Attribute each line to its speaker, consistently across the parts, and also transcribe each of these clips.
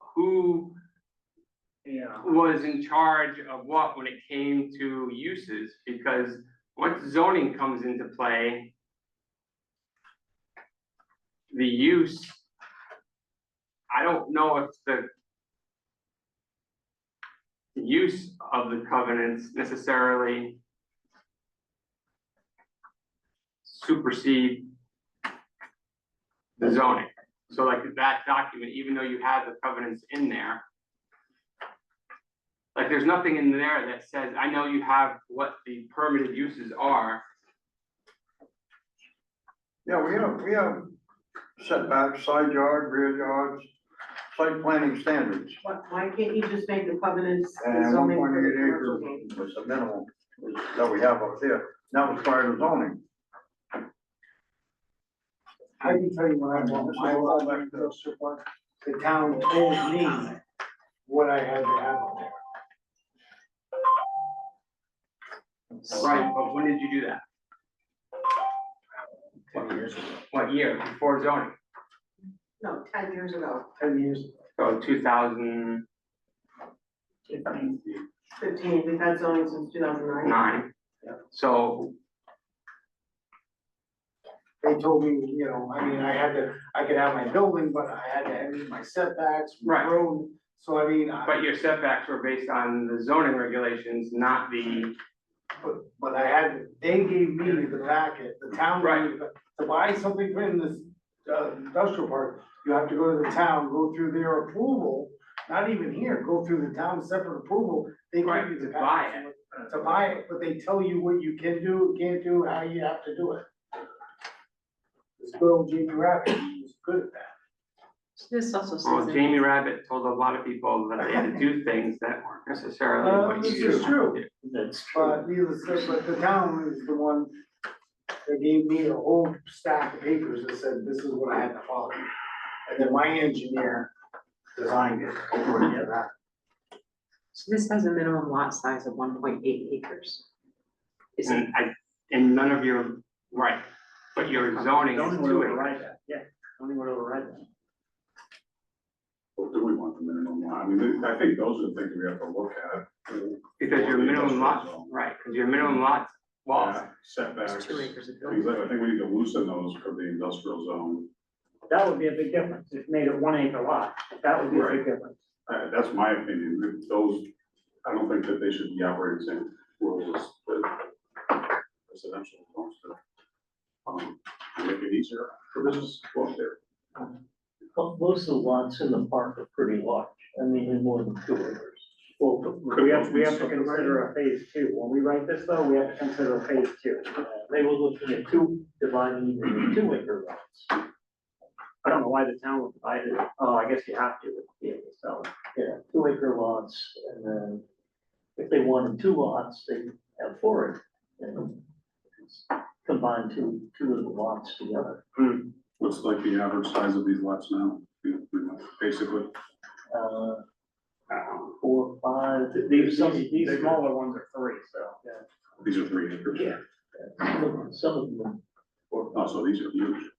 Speaker 1: who
Speaker 2: Yeah.
Speaker 1: was in charge of what when it came to uses, because once zoning comes into play, the use, I don't know if the use of the covenants necessarily supersede the zoning. So like that document, even though you have the covenants in there, like, there's nothing in there that says, I know you have what the permitted uses are.
Speaker 3: Yeah, we have, we have setbacks, side yard, rear yards, site planning standards.
Speaker 4: Why, why can't you just make the covenants the
Speaker 3: And Uh, one
Speaker 4: zoning
Speaker 3: point
Speaker 4: for
Speaker 3: eight
Speaker 4: the
Speaker 3: acres
Speaker 4: commercial game?
Speaker 3: was the minimum that we have up there, now it's prior to zoning.
Speaker 2: I can tell you what I want, I want my grocery one, the town told me what I had to have on there.
Speaker 1: Right, but when did you do that?
Speaker 2: Ten years ago.
Speaker 1: What year? Before zoning?
Speaker 4: No, ten years ago,
Speaker 2: Ten years. ago.
Speaker 1: So two thousand
Speaker 4: fifteen, we've had zoning since two thousand nine.
Speaker 1: nine.
Speaker 2: Yeah.
Speaker 1: So,
Speaker 2: They told me, you know, I mean, I had to, I could have my building, but I had to have my setbacks, my
Speaker 1: Right.
Speaker 2: road, so I mean, I,
Speaker 1: but your setbacks were based on the zoning regulations, not the,
Speaker 2: but, but I had, they gave me the packet, the town. gave me the- To buy something in this, uh, industrial park, you have to go to the town, go through their approval, not even here, go through the town's separate approval, they give
Speaker 1: Right,
Speaker 2: you the
Speaker 1: to buy
Speaker 2: packet. To buy it, but they tell you what you can do, can't do, how you have to do it. This good old Jamie Rabbit, he was good at that.
Speaker 5: This also says
Speaker 1: well,
Speaker 5: in
Speaker 1: oh, Jamie Rabbit told a lot of people that they had to do things that weren't
Speaker 2: Uh,
Speaker 1: necessarily what
Speaker 2: this
Speaker 1: you.
Speaker 2: is true.
Speaker 1: did.
Speaker 3: That's
Speaker 2: But needless to say, but the town is the one that gave me a whole stack of papers that said, this is what I had to follow. And then my engineer designed it over and that.
Speaker 5: so this has a minimum lot size of one point eight acres. Is it,
Speaker 1: And I, and none of your, right, but your zoning is two acres.
Speaker 2: that, yeah, only would override that.
Speaker 6: Well, do we want the minimum lot? I mean, I think those are the things we have to look at.
Speaker 1: Because your minimum lot,
Speaker 6: Industrial zone.
Speaker 1: right, because your minimum lot, walls,
Speaker 6: Yeah, Uh, Setbacks.
Speaker 5: it's two
Speaker 6: Things
Speaker 5: acres of building?
Speaker 6: like, I think we need to loosen those for the industrial zone.
Speaker 7: That would be a big difference, if made it one acre lot, that would be a big difference.
Speaker 6: Uh, that's my opinion. Those, I don't think that they should be operating the same rules as the residential homes. to, Um, make it easier for business to go up there.
Speaker 8: Well, most of the lots in the park are pretty large, I mean, they're more than two acres.
Speaker 7: Well, we have, we have to consider a phase two, when we write this though, we have to consider a phase two.
Speaker 8: Uh, They were looking at two, dividing it into two acre lots.
Speaker 7: I don't know why the town would divide it, oh, I guess you have to, yeah, so.
Speaker 8: Yeah, two acre lots, and then if they wanted two lots, they have four acre. and Combine two, two of the lots together.
Speaker 6: What's like the average size of these lots now? You know, pretty much, Basically,
Speaker 8: Uh, um, four, five,
Speaker 7: Th- These,
Speaker 8: some
Speaker 7: these, these
Speaker 8: bigger.
Speaker 7: smaller ones are three, so.
Speaker 6: these are three acres.
Speaker 8: Yeah. Some of them- some of them, or,
Speaker 6: Oh, so these are huge.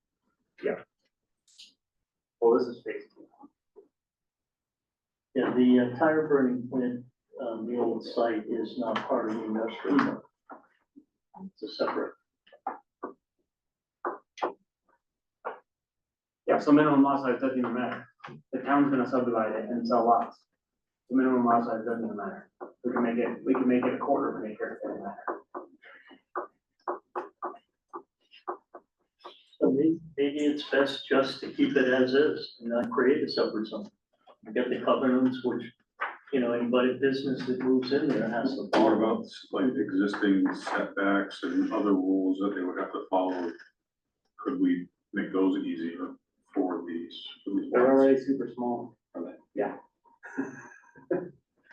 Speaker 7: Well, this is phase two.
Speaker 8: yeah, the uh, tire burning plant, um, the old site is not part of the industrial. park. It's a separate
Speaker 7: Yeah, so minimum lot size doesn't even matter, the town's gonna subdivide it and sell lots. The minimum lot size doesn't even matter, we can make it, we can make it a quarter of an acre, it doesn't matter.
Speaker 8: So may- maybe it's best just to keep it as is and not create a separate zone. You get the covenants, which, you know, anybody business that moves in there has to
Speaker 6: What
Speaker 8: follow.
Speaker 6: about like existing setbacks and other rules that they would have to follow? Could we make those easier for these? for these
Speaker 7: They're
Speaker 6: lots?
Speaker 7: already super small.
Speaker 6: Are they?
Speaker 7: Yeah.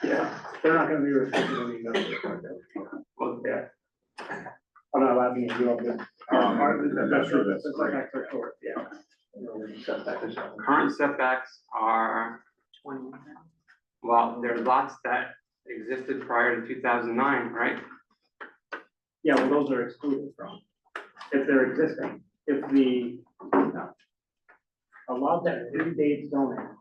Speaker 7: Yeah, they're not gonna be restricted on the industrial park.
Speaker 1: well,
Speaker 7: Yeah. Oh, I'm not allowing you to do all Uh, this.
Speaker 6: Um, that's true, that's
Speaker 7: It's like
Speaker 6: great.
Speaker 7: extra short, yeah.
Speaker 8: you know, the setback is on.
Speaker 1: current setbacks are,
Speaker 5: Twenty.
Speaker 1: well, there are lots that existed prior to two thousand nine, right?
Speaker 7: Yeah, well, those are excluded from, if they're existing, if the, no. A lot that predates zoning